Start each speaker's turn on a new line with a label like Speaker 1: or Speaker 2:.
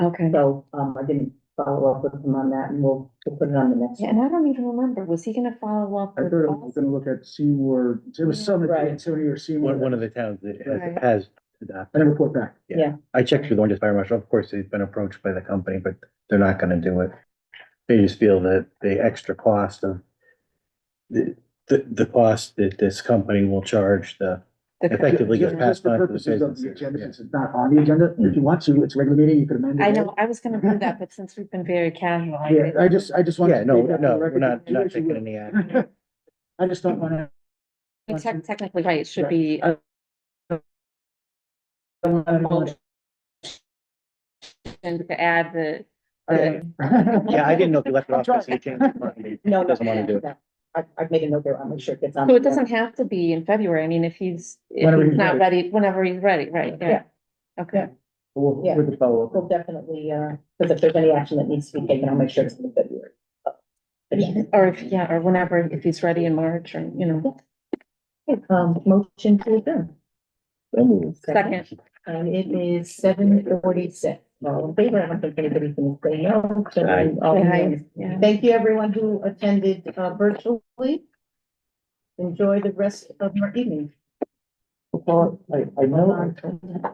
Speaker 1: Okay.
Speaker 2: So, um, I didn't follow up with him on that and we'll, we'll put it on the next.
Speaker 1: Yeah, and I don't even remember, was he gonna follow up
Speaker 3: I
Speaker 1: with
Speaker 3: thought I was
Speaker 1: us?
Speaker 3: gonna look at Seymour, it was Summit,
Speaker 2: Right.
Speaker 3: Antonio or Seymour.
Speaker 4: One, one of the towns that
Speaker 1: Right.
Speaker 4: has- has, adopted.
Speaker 3: I didn't report back.
Speaker 4: I checked with the Orange Fire Marshal, of course, they've been approached by the company, but they're not gonna do it. They just feel that the extra cost of the, the, the cost that this company will charge the,
Speaker 1: The-
Speaker 4: Effectively gets
Speaker 3: Just-
Speaker 4: passed
Speaker 3: just
Speaker 4: on to the
Speaker 3: purposes of
Speaker 4: business.
Speaker 3: agenda,
Speaker 4: Yeah.
Speaker 3: since It's not on the agenda. If you want to, it's regular meeting, you could amend it.
Speaker 1: I know, I was gonna do that, but since we've been very casual. I
Speaker 3: Yeah,
Speaker 1: didn't-
Speaker 3: I just, I just wanted.
Speaker 4: yeah,
Speaker 3: to
Speaker 4: no,
Speaker 3: make that for
Speaker 4: no,
Speaker 3: the
Speaker 4: we're
Speaker 3: record.
Speaker 4: not,
Speaker 3: You
Speaker 4: not
Speaker 3: actually
Speaker 4: taking
Speaker 3: will.
Speaker 4: any action.
Speaker 3: I just don't wanna.
Speaker 1: I mean, tec- Technically, right, it should be,
Speaker 3: I- I don't wanna-
Speaker 1: and to add the,
Speaker 3: Okay.
Speaker 4: Yeah, I didn't know if you left it off, so you changed your mind.
Speaker 2: No, no,
Speaker 4: Doesn't wanna do it.
Speaker 2: no. I, I've made a note there, I'll make sure it gets on.
Speaker 1: so it doesn't have to be in February, I mean, if he's, if
Speaker 3: Whenever
Speaker 1: he's
Speaker 3: he's
Speaker 1: not ready, whenever he's ready, right, yeah. Okay,
Speaker 4: We'll,
Speaker 2: Yeah.
Speaker 4: we'll follow up.
Speaker 2: We'll definitely, uh, because if there's any action that needs to be taken, I'll make sure it's in February. Agenda.
Speaker 1: or if, yeah, or whenever, if he's ready in March, or, you know,
Speaker 2: Um, motion to adjourn.
Speaker 1: second.
Speaker 2: And it is seven forty-six. All in favor, I don't think anybody's gonna say no. so
Speaker 4: Aye.
Speaker 2: all in favor.
Speaker 1: Yeah.
Speaker 2: Thank you, everyone who attended uh, virtually. Enjoy the rest of your evening.
Speaker 3: I, I know.